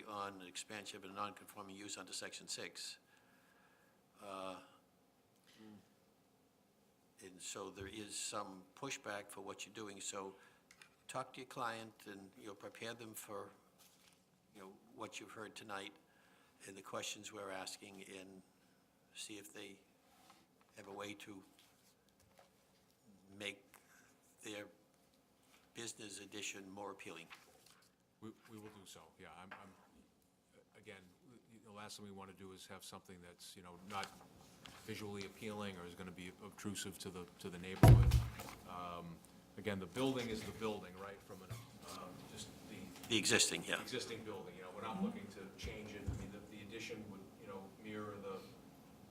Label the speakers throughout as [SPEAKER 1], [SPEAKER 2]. [SPEAKER 1] upon an expansion of a non-conforming use under section six. Uh, And so there is some pushback for what you're doing, so talk to your client and, you know, prepare them for, you know, what you've heard tonight and the questions we're asking and see if they have a way to make their business edition more appealing.
[SPEAKER 2] We, we will do so, yeah. I'm, I'm, again, the last thing we want to do is have something that's, you know, not visually appealing or is going to be obtrusive to the, to the neighborhood. Um, Again, the building is the building, right, from an, um, just the
[SPEAKER 1] The existing, yeah.
[SPEAKER 2] existing building, you know, we're not looking to change it. I mean, the, the addition would, you know, mirror the,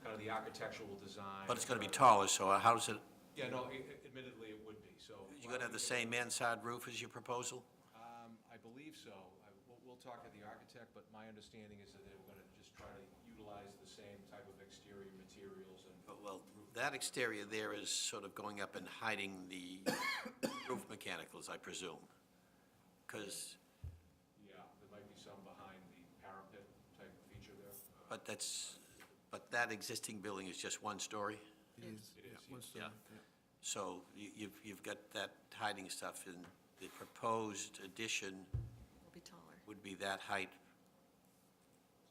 [SPEAKER 2] kind of the architectural design.
[SPEAKER 1] But it's going to be taller, so how does it,
[SPEAKER 2] Yeah, no, i- i- admittedly, it would be, so.
[SPEAKER 1] you're going to have the same mansard roof as your proposal?
[SPEAKER 2] Um, I believe so. I- We'll, we'll talk to the architect, but my understanding is that they were gonna just try to utilize the same type of exterior materials and,
[SPEAKER 1] Well, that exterior there is sort of going up and hiding the roof mechanicals, I presume. Because,
[SPEAKER 2] yeah, there might be some behind the parapet type feature there.
[SPEAKER 1] but that's, but that existing building is just one story,
[SPEAKER 2] It is, yes.
[SPEAKER 1] Yeah. so you- you've, you've got that hiding stuff, and the proposed addition
[SPEAKER 3] will be taller,
[SPEAKER 1] would be that height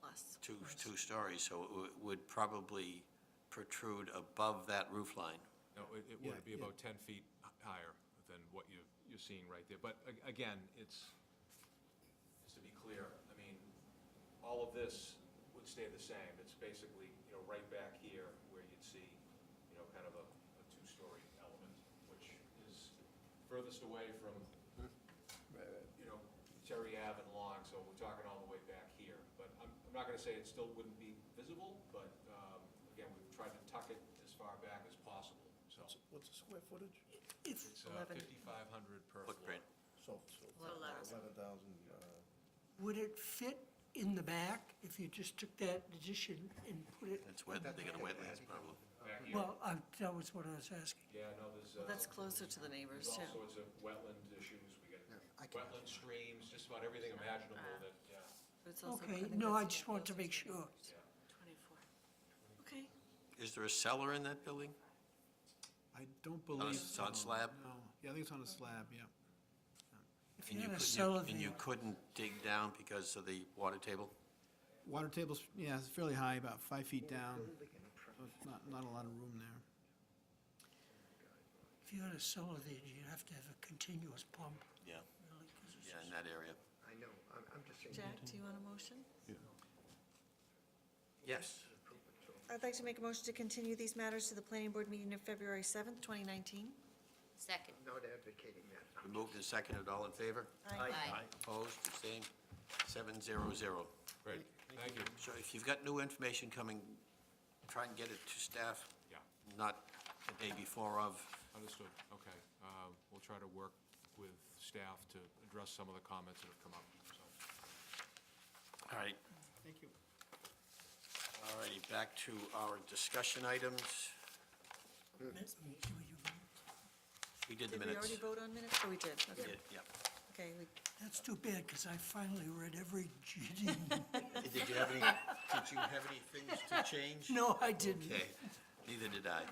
[SPEAKER 3] plus.
[SPEAKER 1] two, two stories, so it would- would probably protrude above that roof line.
[SPEAKER 2] No, it, it
[SPEAKER 4] Yeah,
[SPEAKER 2] would be
[SPEAKER 4] yeah.
[SPEAKER 2] about ten feet h- higher than what you, you're seeing right there. But a- again, it's, just to be clear, I mean, all of this would stay the same. It's basically, you know, right back here where you'd see, you know, kind of a, a two-story element, which is furthest away from, you know, Terry Ave and Long, so we're talking all the way back here. But I'm, I'm not gonna say it still wouldn't be visible, but, um, again, we've tried to tuck it as far back as possible, so.
[SPEAKER 4] What's the square footage?
[SPEAKER 2] It's uh,
[SPEAKER 3] Eleven.
[SPEAKER 2] fifty-five hundred per floor.
[SPEAKER 1] Footprint.
[SPEAKER 4] So, so.
[SPEAKER 3] Eleven thousand.
[SPEAKER 4] Eleven thousand, uh,
[SPEAKER 5] Would it fit in the back if you just took that addition and put it,
[SPEAKER 1] It's wet, they got a wetlands problem.
[SPEAKER 2] Back here,
[SPEAKER 5] well, I- that was what I was asking.
[SPEAKER 2] yeah, no, there's,
[SPEAKER 3] Well,
[SPEAKER 2] uh,
[SPEAKER 3] that's closer to the neighbors,
[SPEAKER 2] there's all
[SPEAKER 3] too.
[SPEAKER 2] sorts of wetland issues, we got
[SPEAKER 4] I can
[SPEAKER 2] wetland streams, just about everything imaginable
[SPEAKER 3] Ah.
[SPEAKER 2] that, yeah,
[SPEAKER 3] But it's also-
[SPEAKER 5] Okay,
[SPEAKER 3] think
[SPEAKER 5] no,
[SPEAKER 3] that's
[SPEAKER 5] I just wanted to
[SPEAKER 3] closer
[SPEAKER 5] make
[SPEAKER 3] the
[SPEAKER 5] sure.
[SPEAKER 3] neighbors.
[SPEAKER 2] yeah.
[SPEAKER 3] Twenty-four. Okay,
[SPEAKER 1] Is there a cellar in that building?
[SPEAKER 6] I don't believe.
[SPEAKER 1] it's on
[SPEAKER 6] so,
[SPEAKER 1] slab?
[SPEAKER 6] no. Yeah, I think it's on a slab, yeah.
[SPEAKER 5] If
[SPEAKER 1] And
[SPEAKER 5] you had a
[SPEAKER 1] couldn't-
[SPEAKER 5] cellar
[SPEAKER 1] And you
[SPEAKER 5] there,
[SPEAKER 1] couldn't dig down because of the water table?
[SPEAKER 6] Water table's, yeah, it's fairly high, about five feet down. So it's Not, not a lot of room there.
[SPEAKER 5] if you had a cellar there, you'd have to have a continuous pump,
[SPEAKER 1] Yeah,
[SPEAKER 5] really, 'cause it's
[SPEAKER 1] yeah, in
[SPEAKER 5] just-
[SPEAKER 1] that area.
[SPEAKER 4] I know, I'm, I'm just saying.
[SPEAKER 3] Jack, do you want a motion?
[SPEAKER 1] Yes.
[SPEAKER 3] I'd like to make a motion to continue these matters to the planning board meeting of February seventh, twenty nineteen.
[SPEAKER 7] Second.
[SPEAKER 4] I'm Not advocating that.
[SPEAKER 1] We moved and seconded, all in favor?
[SPEAKER 7] Aye.
[SPEAKER 1] Opposed, abstained, seven zero zero.
[SPEAKER 2] Great, thank you,
[SPEAKER 1] So if you've got new information coming, try and get it to staff,
[SPEAKER 2] yeah,
[SPEAKER 1] not the day before of.
[SPEAKER 2] understood, okay. Uh, We'll try to work with staff to address some of the comments that have come up, so.
[SPEAKER 1] All right,
[SPEAKER 6] Thank you.
[SPEAKER 1] all righty, back to our discussion items.
[SPEAKER 5] That's me, you- you-
[SPEAKER 1] We did the
[SPEAKER 3] Did we
[SPEAKER 1] minutes.
[SPEAKER 3] already vote on minutes? Oh, we did, okay.
[SPEAKER 1] Yeah.
[SPEAKER 3] Okay, we,
[SPEAKER 5] That's too bad, because I finally read every GD.
[SPEAKER 1] Did you have any, did you have any things to change?
[SPEAKER 5] No, I didn't.
[SPEAKER 1] Okay, neither did I.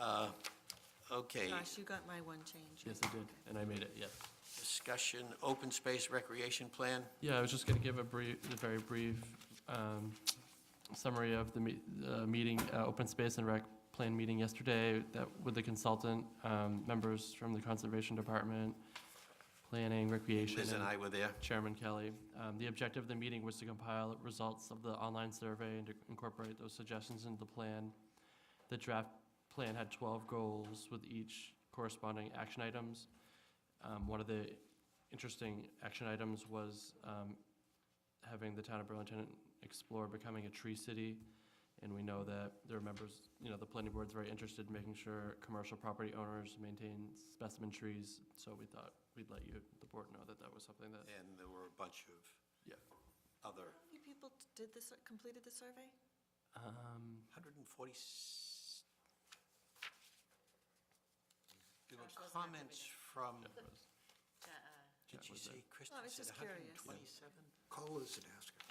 [SPEAKER 1] Uh, Okay,
[SPEAKER 3] Josh, you got my one change.
[SPEAKER 8] Yes, I did, and I made it, yeah.
[SPEAKER 1] discussion, open space recreation plan.
[SPEAKER 8] Yeah, I was just going to give a brief, a very brief um, summary of the me- uh, meeting, uh, Open Space and Rec Plan meeting yesterday that, with the consultant, um, members from the Conservation Department, Planning, Recreation.
[SPEAKER 1] Liz and I were there.
[SPEAKER 8] Chairman Kelly. Um, The objective of the meeting was to compile results of the online survey and to incorporate those suggestions into the plan. The draft plan had 12 goals with each corresponding action items. Um, One of the interesting action items was um, having the town of Burlington explore becoming a tree city. And we know that there are members, you know, the planning board's very interested in making sure commercial property owners maintain specimen trees. So we thought we'd let you, the board know that that was something that,
[SPEAKER 1] And there were a bunch of
[SPEAKER 8] yeah.
[SPEAKER 1] other,
[SPEAKER 3] How many people did this, completed the survey?
[SPEAKER 8] Um,
[SPEAKER 1] 140, there were comments from,
[SPEAKER 8] Jeff was- Jeff
[SPEAKER 1] did you
[SPEAKER 8] was there.
[SPEAKER 1] say, Kristen
[SPEAKER 3] I was
[SPEAKER 1] said
[SPEAKER 3] just curious.
[SPEAKER 1] 127?
[SPEAKER 4] Call us and ask